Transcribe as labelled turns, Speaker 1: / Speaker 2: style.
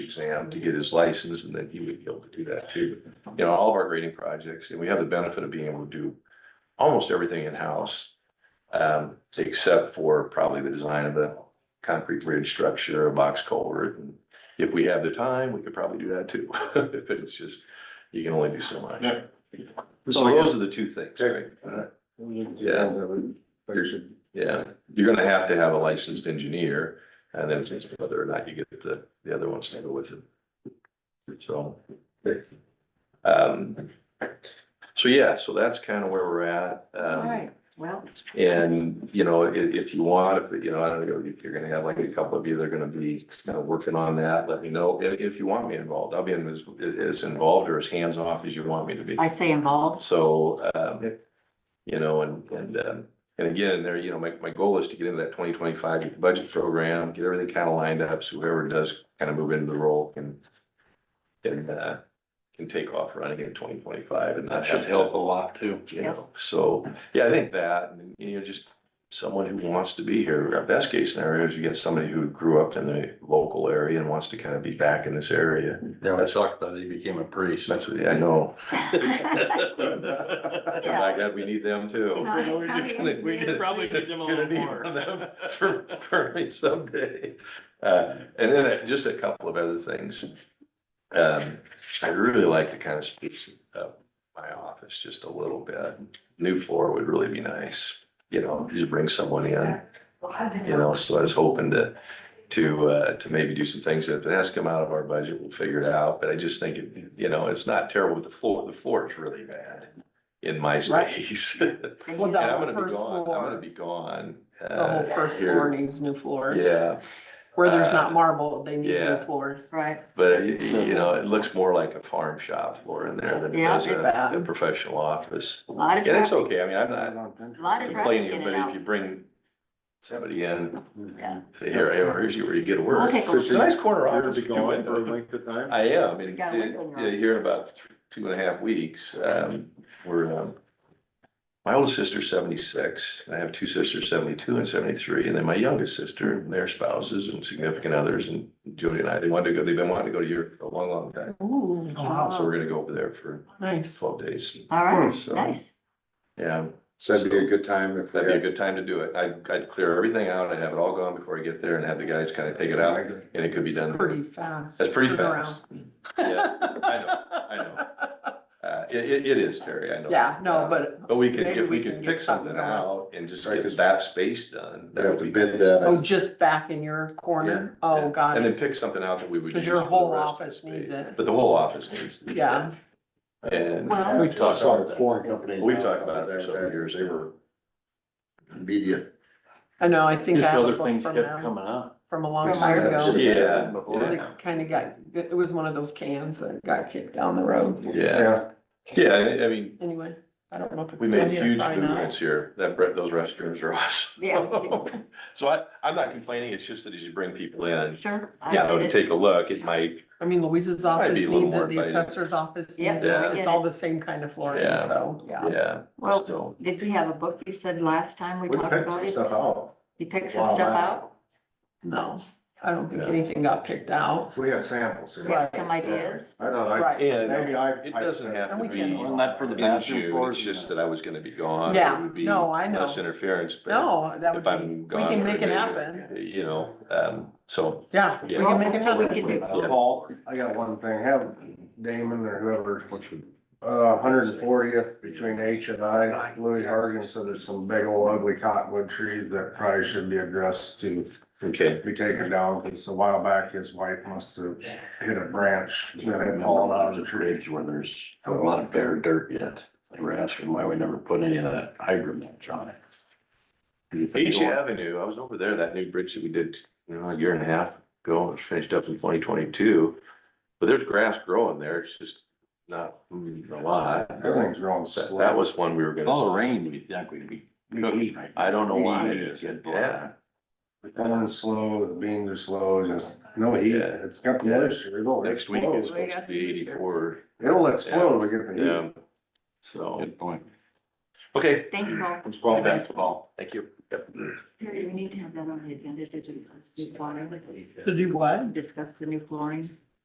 Speaker 1: exam to get his license and then he would be able to do that too. You know, all of our grading projects, and we have the benefit of being able to do almost everything in-house. Um, except for probably the design of the concrete bridge structure, a box culvert. and If we had the time, we could probably do that too. But it's just, you can only do so much. Uh-huh.
Speaker 2: Yeah.
Speaker 1: So those are the two things, right? Yeah. Yeah, you're gonna have to have a licensed engineer, and then it's just whether or not you get the, the other ones to go with it. So. Um, so yeah, so that's kind of where we're at.
Speaker 3: All
Speaker 1: Um,
Speaker 3: right, well,
Speaker 1: and, you know, if, if you want, if, you know, I don't know, if you're gonna have like a couple of you that are gonna be kind of working on that, let me know. If, if you want me involved, I'll be in as, as involved or as hands-off as you want me to be.
Speaker 3: I say involved.
Speaker 1: So, um, you know, and, and, um, and again, there, you know, my, my goal is to get into that twenty twenty-five budget program, get everything kind of lined up, so whoever does kind of move into the role can, can, uh, can take off running in twenty twenty-five and
Speaker 2: That
Speaker 1: not
Speaker 2: should
Speaker 1: have
Speaker 2: help a
Speaker 1: help,
Speaker 2: lot too.
Speaker 1: you know, so, yeah, I think that, and, you know, just someone who wants to be here, our best case scenario is you get somebody who grew up in the local area and wants to kind of be back in this area.
Speaker 2: Yeah, I talked about it, he became a priest.
Speaker 1: That's, what I know,
Speaker 2: That's.
Speaker 1: I'm like, God, we need them too. We're just gonna- we're gonna-
Speaker 2: Probably give them a
Speaker 1: gonna
Speaker 2: little
Speaker 1: need
Speaker 2: more.
Speaker 1: them For, for me someday. Uh, and then uh, just a couple of other things. Um, I'd really like to kind of spruce up my office just a little bit. New floor would really be nice, you know, just bring someone in, you know, so I was hoping to, to, uh, to maybe do some things. If it has to come out of our budget, we'll figure it out. But I just think, it you know, it's not terrible with the floor. The floor is really bad in my
Speaker 4: Right.
Speaker 1: space.
Speaker 4: Well,
Speaker 1: Yeah,
Speaker 4: the
Speaker 1: I'm
Speaker 4: whole
Speaker 1: gonna be
Speaker 4: first
Speaker 1: gone, I'm gonna
Speaker 4: floor,
Speaker 1: be gone.
Speaker 4: the
Speaker 1: uh,
Speaker 4: whole first
Speaker 1: here.
Speaker 4: floor needs new floors.
Speaker 1: Yeah,
Speaker 4: Where there's
Speaker 1: uh,
Speaker 4: not marble, they need
Speaker 1: yeah.
Speaker 4: new floors.
Speaker 3: Right,
Speaker 1: but y- y- you know, it looks more like a farm shop floor in there than it
Speaker 3: Yeah,
Speaker 1: does
Speaker 3: it's
Speaker 1: a,
Speaker 4: bad.
Speaker 1: a professional office.
Speaker 3: a lot of
Speaker 1: And it's
Speaker 3: traffic,
Speaker 1: okay, I mean, I'm not
Speaker 3: a lot of traffic
Speaker 1: complaining,
Speaker 3: in
Speaker 1: but
Speaker 3: and
Speaker 1: if you
Speaker 3: out.
Speaker 1: bring somebody in,
Speaker 3: Yeah.
Speaker 1: say, here, here, here's you where you get to work.
Speaker 3: We'll take a
Speaker 1: It's a nice corner
Speaker 5: You're gonna
Speaker 1: office.
Speaker 5: be
Speaker 1: with two
Speaker 5: gone for a
Speaker 1: windows.
Speaker 5: length of time?
Speaker 1: I am, and,
Speaker 3: got a window in
Speaker 1: yeah,
Speaker 3: your
Speaker 1: here in about th- two and a half weeks, um, we're, um, my oldest sister's seventy-six, and I have two sisters, seventy-two and seventy-three, and then my youngest sister, and their spouses and significant others, and Jody and I, they wanted to go, they've been wanting to go to Europe for a long, long time.
Speaker 4: Ooh,
Speaker 1: So we're gonna go over there for
Speaker 4: nice.
Speaker 1: twelve days,
Speaker 3: All right,
Speaker 1: Hmm, so-
Speaker 3: nice.
Speaker 1: yeah,
Speaker 5: So that'd be a good time if.
Speaker 1: that'd be a good time to do it, I'd, I'd clear everything out, I'd have it all gone before I get there and have the guys kind of take it out, and it could be done.
Speaker 4: Pretty fast.
Speaker 1: That's pretty fast.
Speaker 4: turnaround.
Speaker 1: Yeah, I know, uh, it, it, it is, Terry, I know.
Speaker 4: Yeah, no,
Speaker 1: Uh,
Speaker 4: but
Speaker 1: But we could,
Speaker 4: Maybe
Speaker 1: if we
Speaker 4: we
Speaker 1: could
Speaker 4: can
Speaker 1: pick
Speaker 4: get something
Speaker 1: something
Speaker 4: going.
Speaker 1: out and just
Speaker 5: Right,
Speaker 1: get
Speaker 5: 'cause
Speaker 1: that space done.
Speaker 5: They
Speaker 1: that
Speaker 5: have
Speaker 1: would
Speaker 5: to
Speaker 1: be
Speaker 5: bid
Speaker 1: nice.
Speaker 5: that.
Speaker 4: Oh, just back in your corner?
Speaker 1: Yeah, yeah.
Speaker 4: Oh, got
Speaker 1: And then
Speaker 4: it.
Speaker 1: pick something out that we would.
Speaker 4: Because
Speaker 1: use
Speaker 4: your
Speaker 1: for the
Speaker 4: whole
Speaker 1: rest of the
Speaker 4: office needs
Speaker 1: space.
Speaker 4: it.
Speaker 1: But the whole office needs. it.
Speaker 4: Yeah,
Speaker 1: And
Speaker 3: Well-
Speaker 5: We
Speaker 1: we've
Speaker 5: talked
Speaker 1: talked,
Speaker 5: about a flooring company.
Speaker 1: we've talked about it for several years.
Speaker 5: They were media.
Speaker 4: I know, I think I
Speaker 2: Just
Speaker 4: have a
Speaker 2: other
Speaker 4: book
Speaker 2: things
Speaker 4: from
Speaker 2: kept
Speaker 4: them,
Speaker 2: coming up.
Speaker 4: from a long
Speaker 3: From
Speaker 4: time
Speaker 5: Ireland.
Speaker 4: ago.
Speaker 1: yeah,
Speaker 4: Because
Speaker 1: yeah,
Speaker 4: it kind of got, it was one of those cans that got kicked down the road.
Speaker 1: yeah, yeah, I I mean,
Speaker 4: Anyway, I don't know if it's.
Speaker 1: we
Speaker 4: still
Speaker 1: made
Speaker 4: here,
Speaker 1: huge
Speaker 4: probably not.
Speaker 1: movements here. That, bre- those restrooms are awesome.
Speaker 3: Yeah.
Speaker 1: So I, I'm not complaining. It's just that as you bring people in,
Speaker 3: Sure. I
Speaker 1: you know,
Speaker 3: get
Speaker 1: to
Speaker 3: it.
Speaker 1: take a look, it might
Speaker 4: I mean, Louise's
Speaker 1: Might be
Speaker 4: office
Speaker 1: a little
Speaker 4: needs
Speaker 1: more
Speaker 4: it, the
Speaker 1: inviting.
Speaker 4: assessor's office
Speaker 3: Yep,
Speaker 4: needs
Speaker 1: Yeah.
Speaker 4: it, it's all the same kind of flooring,
Speaker 1: Yeah.
Speaker 4: so, yeah.
Speaker 1: Yeah.
Speaker 3: Well,
Speaker 1: so-
Speaker 3: Did we have a book you said last time we
Speaker 5: We
Speaker 3: talked
Speaker 5: picked
Speaker 3: about
Speaker 5: some
Speaker 3: it?
Speaker 5: stuff out.
Speaker 3: You picked
Speaker 5: a
Speaker 3: some
Speaker 5: while
Speaker 3: stuff
Speaker 5: back.
Speaker 3: out?
Speaker 4: No, I don't think
Speaker 1: Yeah.
Speaker 4: anything got picked out.
Speaker 5: We had samples.
Speaker 3: We have some ideas?
Speaker 5: I know, I,
Speaker 4: Right,
Speaker 1: And
Speaker 5: maybe I.
Speaker 1: it doesn't have
Speaker 4: And
Speaker 1: to
Speaker 4: we
Speaker 1: be.
Speaker 4: can-
Speaker 2: Wasn't that for the
Speaker 1: in
Speaker 2: bathroom
Speaker 1: June,
Speaker 2: floors?
Speaker 1: it's just that I was gonna be gone.
Speaker 4: Yeah,
Speaker 1: It would be
Speaker 4: no, I know.
Speaker 1: Less interference, but
Speaker 4: no, that would
Speaker 1: if
Speaker 4: be,
Speaker 1: I'm
Speaker 4: we
Speaker 1: gone.
Speaker 4: can
Speaker 1: or
Speaker 4: make it
Speaker 1: maybe,
Speaker 4: happen,
Speaker 1: You know, um, so,
Speaker 4: yeah, we
Speaker 1: Yeah.
Speaker 4: can make it
Speaker 3: We can
Speaker 4: happen.
Speaker 3: do
Speaker 1: Yeah.
Speaker 6: Paul, I got one thing, have Damon or whoever, uh, hundred and fortieth between H and I, Louis Hargan said there's some big old ugly cottonwood trees that probably should be addressed to
Speaker 1: okay,
Speaker 6: be taken down, because a while back, his wife must have hit a branch that had fallen out of the tree.
Speaker 2: where there's a lot of bare dirt yet. They were asking why we never put any of that hydromatch on it.
Speaker 1: H Avenue, I was over there, that new bridge that we did, you know, a year and a half ago, it was finished up in twenty twenty-two. But there's grass growing there, it's just not mm, a lot.
Speaker 6: Everything's growing
Speaker 1: That,
Speaker 6: slow.
Speaker 1: that was one we were gonna.
Speaker 2: All the rain, we think we'd be.
Speaker 6: We-
Speaker 1: I don't know why it
Speaker 6: We-
Speaker 1: is, yeah.
Speaker 6: Yeah. The corn's slow, the beans are slow, just no heat,
Speaker 1: Yeah.
Speaker 6: it's got the
Speaker 1: Yeah.
Speaker 6: moisture, it'll
Speaker 1: Next week
Speaker 2: Oh,
Speaker 1: is
Speaker 6: explode.
Speaker 1: supposed to be eighty-four,
Speaker 6: It'll explode when we get the heat.
Speaker 1: yeah, so,
Speaker 2: Good point.
Speaker 1: okay.
Speaker 3: Thank you, Paul.
Speaker 5: It's called
Speaker 1: Thank
Speaker 5: back.
Speaker 1: you, Paul. Thank you. Yep.
Speaker 3: Terry, we need to have that on the agenda to discuss new flooring.
Speaker 4: To do what?
Speaker 3: Discuss the new flooring.